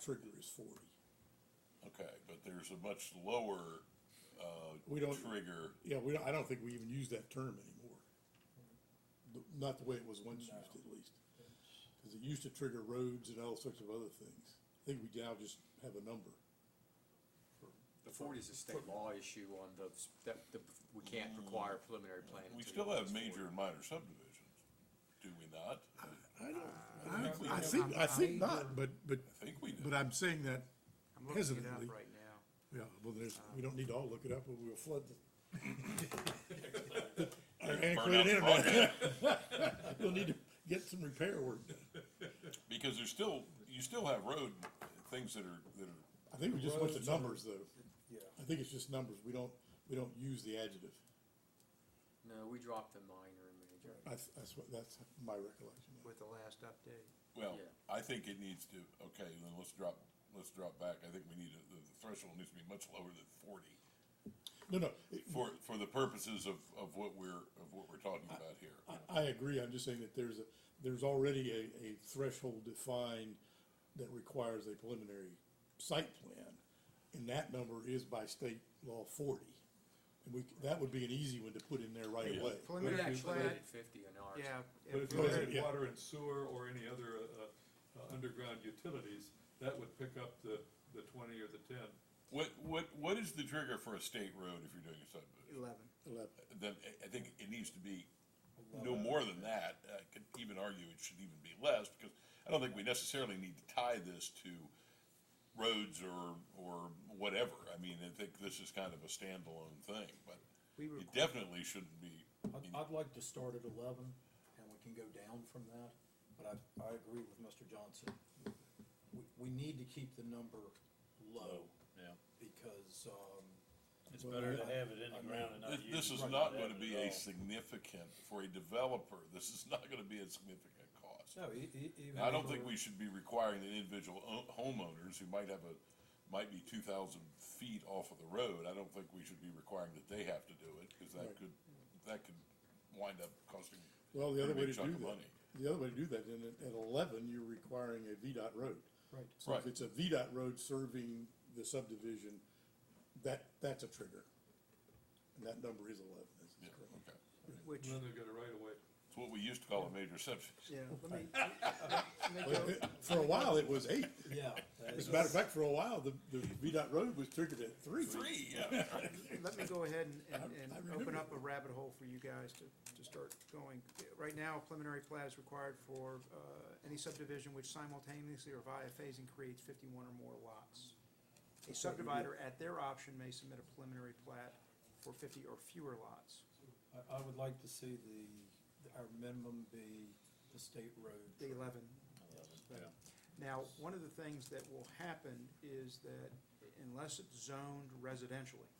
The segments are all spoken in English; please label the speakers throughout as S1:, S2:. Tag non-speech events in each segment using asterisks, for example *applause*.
S1: trigger is forty.
S2: Okay, but there's a much lower, uh,
S1: We don't,
S2: trigger,
S1: yeah, we, don't- I don't think we even use that term anymore. The- Not the way it was once used at least. Cause it used to trigger roads and all sorts of other things. I think we now just have a number.
S3: The forty is a state law issue on the, that, the, we can't require preliminary planning.
S2: Mm. we still have major and minor subdivisions, do we not?
S1: I
S2: I think we
S1: don't, I
S2: do.
S1: think, I think not, but, but,
S2: I think we do.
S1: but I'm saying that,
S4: I'm looking it up
S1: Hesitantly.
S4: right now.
S1: yeah, well, there's, we don't need to all look it up, but we'll flood
S2: *laughs*
S1: the. Our antiquated
S2: Burn out the
S1: internet, *laughs* we'll need to get some repair work done.
S2: Because there's still, you still have road, things that are, that are
S1: I think we just went to numbers though.
S5: Yeah.
S1: I think it's just numbers. We don't, we don't use the adjective.
S3: No, we dropped the minor and major.
S1: That's, that's what, that's my recollection.
S4: with the last update.
S2: Well,
S3: Yeah.
S2: I think it needs to, okay, then let's drop, let's drop back, I think we need, to- the the threshold needs to be much lower than forty
S1: No, no, it-
S2: for, for the purposes of, of what we're, of what we're talking about here.
S1: I, I agree. I'm just saying that there's a, there's already a, a threshold defined that requires a preliminary site plan. And that number is by state law forty. And we, that would be an easy one to put in there right
S2: Yeah.
S1: away.
S3: We
S4: Preliminary
S3: actually
S4: plan,
S3: made it fifty in ours.
S4: yeah.
S5: But if
S4: if
S5: you
S1: Yeah.
S5: had
S1: Yeah.
S5: water and sewer or any other, uh, uh, underground utilities, that would pick up the, the twenty or the ten.
S2: What, what, what is the trigger for a state road if you're doing a subdivision?
S4: Eleven.
S1: Eleven.
S2: Then, I- I think it needs to be no more than that, I could even argue it should even be less, because I don't think we necessarily need to tie this to roads or, or whatever, I mean, I think this is kind of a standalone thing, but
S4: We were,
S2: it definitely shouldn't be.
S6: I'd, I'd like to start at eleven, and we can go down from that, but I, I agree with Mr. Johnson. We, we need to keep the number low,
S7: Yeah,
S6: because, um.
S7: it's
S6: well,
S7: better to
S6: I-
S7: have it in
S6: I
S7: the
S6: mean,
S7: ground and not
S2: This,
S7: use it.
S2: this is
S7: than
S2: not
S7: have
S2: gonna
S7: it
S2: be a
S7: at all.
S2: significant, for a developer, this is not gonna be a significant cost.
S6: No, e- e- even.
S2: And I don't
S6: if
S2: think
S6: we're-
S2: we should be requiring that individual o- homeowners who might have a, might be two thousand feet off of the road, I don't think we should be requiring that they have to do it, cause that
S1: Right.
S2: could, that could wind up costing.
S1: Well, the
S2: a
S1: other way
S2: big
S1: to
S2: chunk
S1: do
S2: of
S1: that,
S2: money.
S1: the other way to do that, then at- at eleven, you're requiring a VDOT road.
S6: Right.
S1: So if
S2: Right.
S1: it's a VDOT road serving the subdivision, that, that's a trigger. And that number is eleven, that's
S2: Yeah,
S1: correct.
S2: okay.
S4: which,
S5: Then they got a right away.
S2: It's what we used to call a major subdivision.
S4: yeah, let me, let me
S1: Well,
S4: go,
S1: it- For a while, it was eight.
S6: *laughs* Yeah. that
S1: *laughs*
S6: is-
S1: As a matter of fact, for a while, the, the VDOT road was triggered at three.
S2: Three, yeah.
S4: let me go ahead and, and,
S1: I- I
S4: and
S1: remember
S4: open up
S1: that.
S4: a rabbit hole for you guys to, to start going. Right now, preliminary plat is required for, uh, any subdivision which simultaneously or via phasing creates fifty-one or more lots. A subdivider at their option may submit a preliminary plat for fifty or fewer lots.
S6: I, I would like to see the, our minimum be the state road.
S4: The eleven.
S6: Yeah.
S4: Now, one of the things that will happen is that unless it's zoned residentially,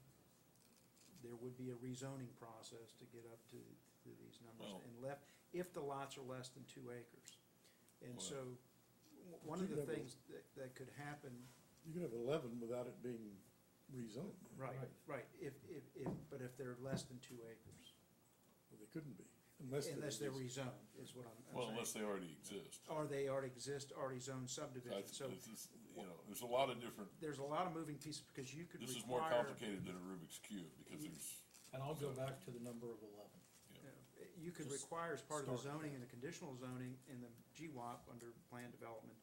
S4: there would be a rezoning process to get up to, to these numbers
S2: Well-
S4: and left, if the lots are less than two acres. And
S2: Well-
S4: so, w- one of the
S1: Keep that
S4: things that, that could happen,
S1: You could have eleven without it being rezoned,
S4: right, right, if, if, if, but if they're less than two acres,
S1: but they couldn't be, unless. there
S4: unless they're
S1: was-
S4: rezoned, is what I'm-
S2: Well,
S4: I'm
S2: unless
S4: saying.
S2: they already exist.
S4: Or they already exist, already zoned subdivision,
S2: That's-
S4: Oh, so
S2: this is, you know, there's a lot of different,
S4: there's a lot of moving pieces, because you could
S2: this
S4: require.
S2: is more complicated than a Rubik's Cube, because there's,
S6: And I'll go back to the number of eleven.
S4: Yeah, You could
S6: Just
S4: require as part of the
S6: start.
S4: zoning and the conditional zoning in the GWAP under plan development,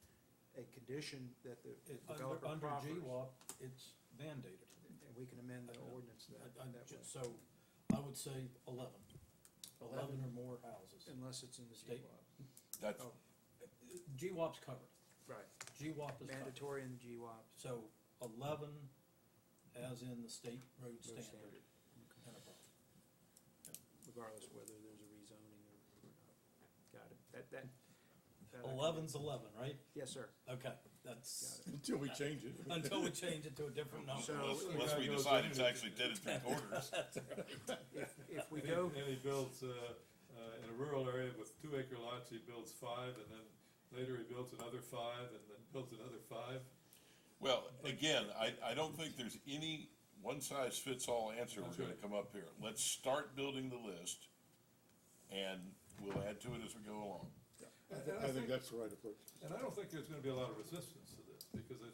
S4: a condition that the
S6: It, under,
S4: developer
S6: under
S4: proffers.
S6: GWAP, it's mandated.
S4: And we can amend the ordinance that,
S6: I- I-
S4: that way,
S6: So I would say eleven. Eleven or more houses.
S4: unless it's in the
S6: State-
S4: GWAP.
S2: that's,
S4: Oh.
S6: GWAP's covered.
S4: Right,
S6: GWAP is covered.
S4: mandatory in the GWAP.
S6: So eleven as in the state road
S4: no
S6: standard. and above.
S4: Regardless whether there's a rezoning or or not. Got it, that, that. that I can do.
S6: Eleven's eleven, right?
S4: Yes, sir.
S6: Okay, that's,
S1: Until we change it.
S6: *laughs* until we change it to a different number.
S4: So-
S2: unless,
S4: it-
S2: unless we
S5: That goes
S2: decide it's
S5: into-
S2: actually ten and three *laughs* quarters.
S4: If, if we
S6: *laughs*
S5: And he-
S4: go,
S5: And he builds, uh, uh, in a rural area with two acre lots, he builds five, and then later he builds another five, and then builds another five.
S2: Well, again, I, I don't think there's any one-size-fits-all answer we're gonna come up here. Let's start building the list, and we'll add to it as we go along.
S1: I think that's the right approach.
S5: And I don't think there's gonna be a lot of resistance to this. because I think